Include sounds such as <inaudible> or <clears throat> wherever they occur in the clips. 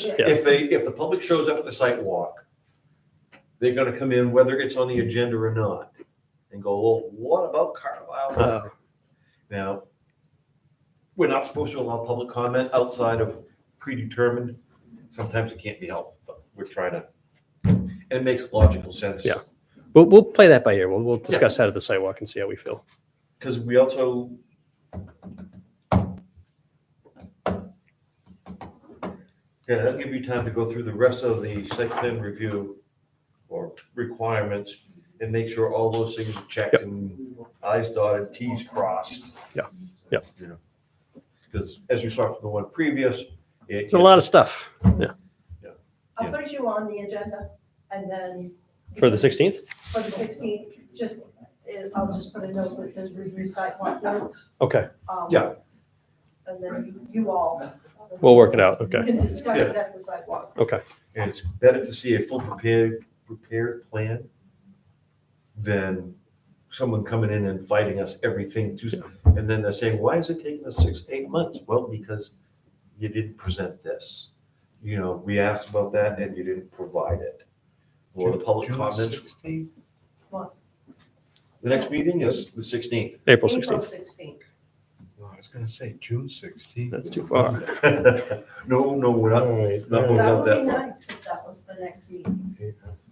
Yeah. If they, if the public shows up at the site walk, they're gonna come in whether it's on the agenda or not and go, well, what about Carlisle? Road?" Uh, Now, we're not supposed to allow public comment outside of predetermined. Sometimes it can't be helped, but we're trying to, and it makes logical sense. Yeah. We'll, we'll play that by ear. We'll, we'll discuss that at the sidewalk and see how we feel. Because we also. Yeah, that'll give you time to go through the rest of the site plan review or requirements and make sure all those things are checked Yep. and i's dotted, t's crossed. Yeah, yep. Because as you saw from the one previous. It's a lot of stuff Yeah. I'll put you on the agenda and then. for the 16th. For the sixteenth, just, eh, I'll just put a note that says review site walk notes. Okay. um, Yeah. And then you all. We'll work it out. You Okay. can discuss it at the sidewalk. Okay. And it's better to see a full prepared, prepared plan than someone coming in and fighting us everything to, and then they're saying, why is it taking us six, eight months? Well, because you didn't present this. You know, we asked about that and you didn't provide it. Or the public comments. The What? next meeting is the sixteenth. <laughs> April April 16th. sixteenth. No, I was gonna say June sixteenth. That's too <laughs> far. No, no, we're not, Alright, not moving That up would be that far. nice if that was the next meeting.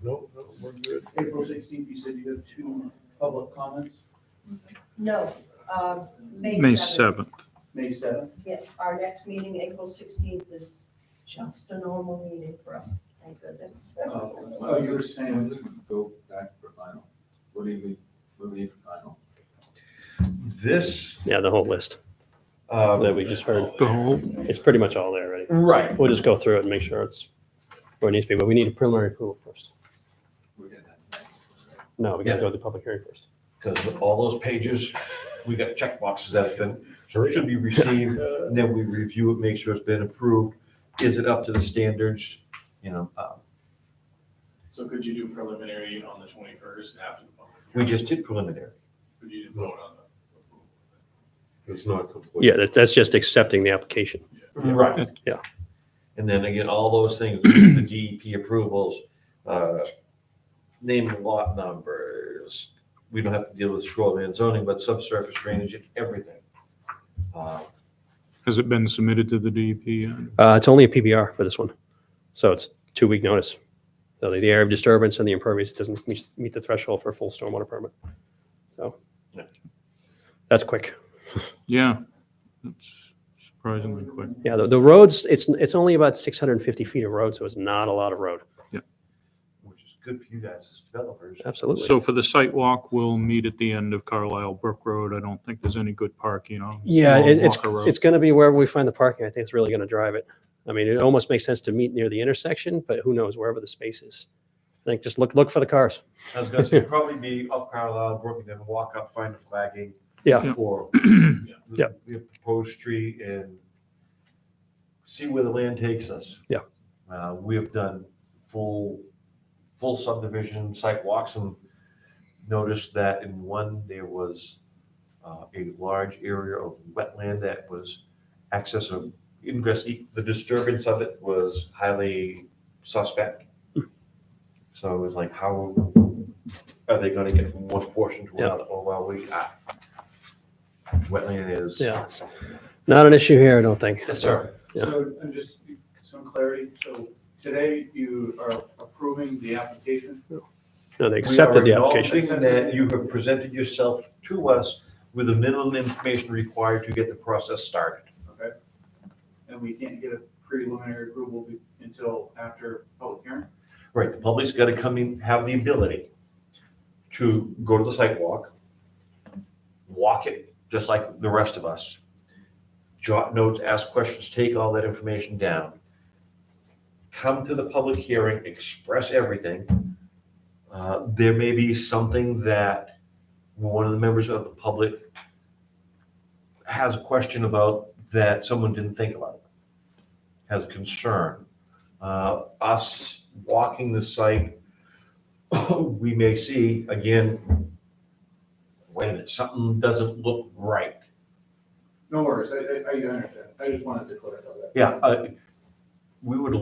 no, no, uh, we're good. April sixteenth, you said you have two public comments, No, um, May May seventh. 7th. May seventh. Yeah, our next meeting, April sixteenth, is just a normal meeting for us, thank goodness. Oh, you were saying, Go back for final. What do you mean, what do you mean final? This, Yeah, the whole list um, that we just heard. The whole, It's pretty much all there already. right, We'll just go through it and make sure it's where it needs to be, but we need a preliminary approval first. We're getting that. No, we gotta go to the public hearing first. because with all those pages, we got check boxes that have been, so it should be received, uh, and then we review it, make sure it's been approved. Is it up to the standards, you know, uh, So could you do preliminary on the twenty-first after the public? we just did preliminary, Could you vote on the? approval? It's not complete. Yeah, that- that's just accepting the application. right? Yeah. And then again, all those things, <clears throat> the DEP approvals, uh, name and lot numbers. We don't have to deal with shoreline zoning, but subsurface drainage and everything. Uh, has it been submitted to the DEP? yet? Uh, it's only a PBR for this one. So it's two week notice. So the the area of disturbance and the impervious doesn't meet meet the threshold for a full stormwater permit. So Yeah. that's quick. Yeah, that's surprisingly quick. Yeah, the, the roads, it's, it's only about 650 feet of road, so it's not a lot of road. Which is good for you guys as developers. Absolutely. So for the site walk, we'll meet at the end of Carlisle Brook Road. I don't think there's any good parking on. Yeah, along it- it's, Walker Road. it's going to be wherever we find the parking. I think it's really going to drive it. I mean, it almost makes sense to meet near the intersection, but who knows wherever the space is. I think just look, look for the cars. I was gonna say, it'd probably be off Carlisle Brook and then walk up, find the flagging. Yeah. For <clears throat> Yeah. the the proposed tree and see where the land takes us. Yeah. Uh, we have done full, full subdivision site walks and noticed that in one, there was uh, a large area of wetland that was access of ingress, the disturbance of it was highly suspect. Hmm. So it was like, how are they gonna get from one portion to Yeah. another? Oh, well, we, ah, wetland is. Yeah. it's Not an issue here, I don't think. Yes, sir. Yeah. so I'm just, some clarity, so today you are approving the application? No, they accepted the We are application. acknowledging That you have presented yourself to us with the minimum information required to get the process started. Okay. And we can't get a preliminary approval be- until after public hearing? Right, the public's gotta come in, have the ability to go to the sidewalk, walk it, just like the rest of us. Jot notes, ask questions, take all that information down. Come to the public hearing, express everything. Uh, There may be something that one of the members of the public has a question about that someone didn't think about, has a concern uh, us walking the site, <coughs> we may see, again, wait a minute, something doesn't look right. No worries, I, I, I understand, I just wanted to clarify that. Yeah, uh, we would